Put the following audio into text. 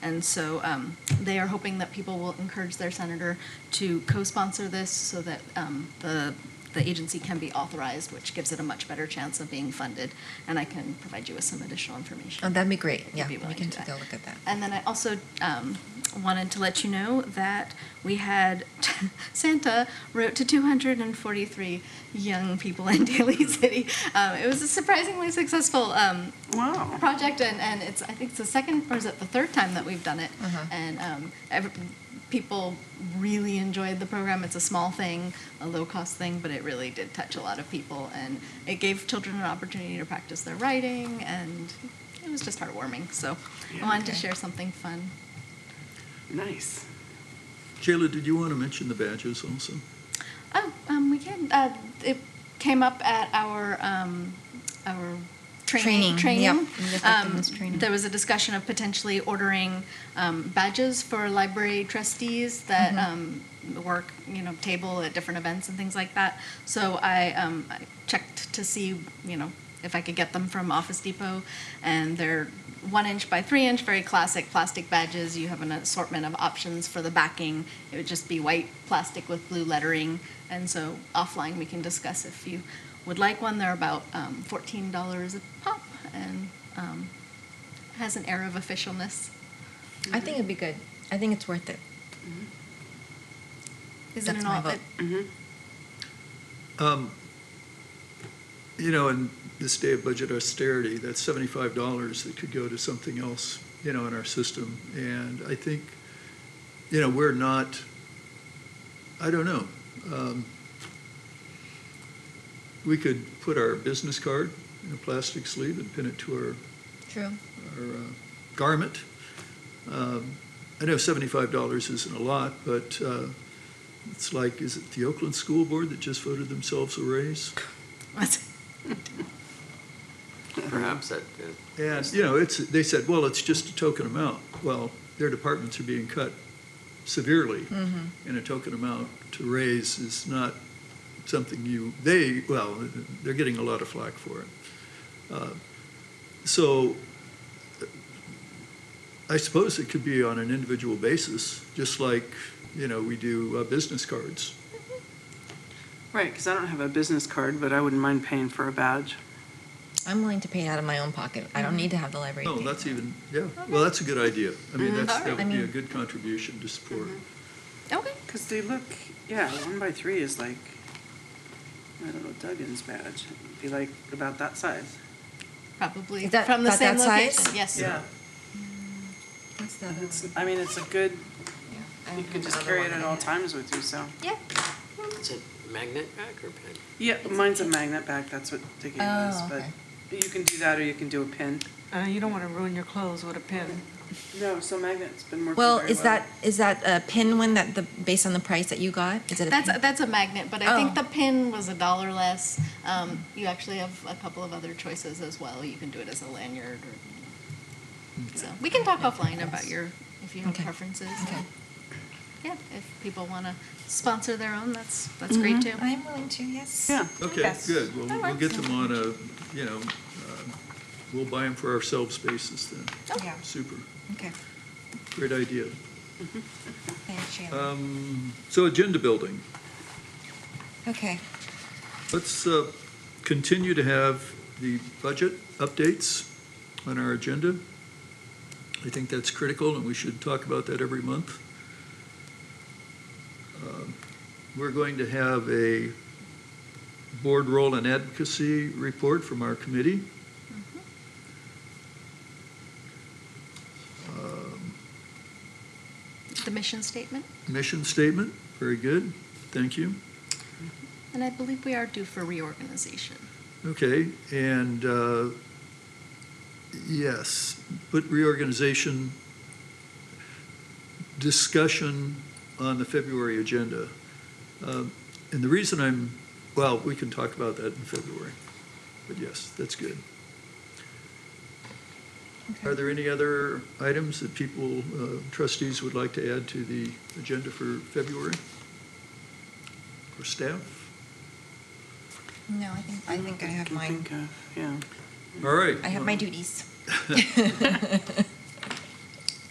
And so um, they are hoping that people will encourage their senator to co-sponsor this so that um, the, the agency can be authorized, which gives it a much better chance of being funded. And I can provide you with some additional information. Oh, that'd be great. if you'd Yeah, be we willing can to do take a look at that. And then I also um, wanted to let you know that we had Santa wrote to 243 young people in Daly City. Um, it was a surprisingly successful um, Wow. project, and, and it's I think it's the second or is it the third time that we've done it, Uh-huh. and um, every, people really enjoyed the program. It's a small thing, a low cost thing, but it really did touch a lot of people, and it gave children an opportunity to practice their writing, and it was just heartwarming. So I Yeah. wanted to Okay. share something fun. Nice. Jayla, did you want to mention the badges also? Oh, um, we can. Uh, it came up at our um, our training. Um, Training, yep, in the effectiveness training. There was a discussion of potentially ordering um, badges for library trustees that um, work, you know, table at different events and things like that. So I, um, I checked to see, you know, if I could get them from Office Depot, and they're one inch by three inch, very classic plastic badges. You have an assortment of options for the backing. It would just be white plastic with blue lettering. And so offline, we can discuss if you would like one. They're about um, $14 a pop and um, has an air of officialness. Uh, I think it'd be good. I think it's worth it. Is it That's an my all- vote. Um, You know, in this day of budget austerity, that's seventy-five dollars that could go to something else, you know, in our system. And I think, you know, we're not, I don't know. Um, We could put our business card in a plastic sleeve and pin it to our True. or uh, garment. Um, I know seventy-five dollars isn't a lot, but uh, it's like, is it the Oakland School Board that just voted themselves a raise? Perhaps that. uh, And, you know, it's, they said, well, it's just a token amount. Well, their departments are being cut severely, Mm-hmm. and a token amount to raise is not something you, they, well, they're getting a lot of flack for it. Uh, So I suppose it could be on an individual basis, just like, you know, we do uh, business cards. Right, because I don't have a business card, but I wouldn't mind paying for a badge. I'm willing to pay it out of my own pocket. I Mm-hmm. don't need to have the library. No, pay. that's even, yeah, well, that's a good idea. I mean, that's, Alright. that would Mm-hmm. I be a mean- mm-hmm. good contribution to support. Okay. Because they look, yeah, one by three is like, I don't know, Duggan's badge. It'd be like about that size. Probably Is that from the about same that location. size? Yes. Yeah. What's the And other It's, one? I mean, it's a good, Yeah, I you don't could have just the carry other it one Oh, at in all it. times with you, so. Yeah. Is it magnet pack or pen? Yeah, mine's a magnet back, that's what they gave us, Oh, but okay. you can do that or you can do a pin. Uh, you don't want to ruin your clothes with a pin. No, so magnet's been working Well, very is that is that a pin one that the based on the price that you got? Is it a That's a, pin? that's a magnet, but I Oh. think the pin was a dollar less. Um, you actually have a couple of other choices as well. You can do it as a lanyard, or you know. so we can talk offline about your if you have Okay. preferences. okay. Yeah, if people want to sponsor their own, that's that's great too. Mm-hmm. I'm willing to. Yes. Yeah. Okay, Yes. good. Well, That we'll get works. them on a, you know, um, we'll buy them for ourselves basis then. Oh. Yeah. Super. Okay. Great idea. Thanks, Sheila. Um, So agenda building. okay. Let's uh, continue to have the budget updates on our agenda. I think that's critical, and we should talk about that every month. Um, We're going to have a board role and advocacy report from our committee. Mm-hmm. Um, The mission statement, Mission statement, very good, thank you. and I believe we are due for reorganization. Okay, and, uh, yes, put reorganization discussion on the February agenda. Um, And the reason I'm, well, we can talk about that in February, but yes, that's good. Are there any other items that people, uh, trustees would like to add to the agenda for February? Or staff? No, I think I think I have can mine. think of, Yeah. All right. I have my duties.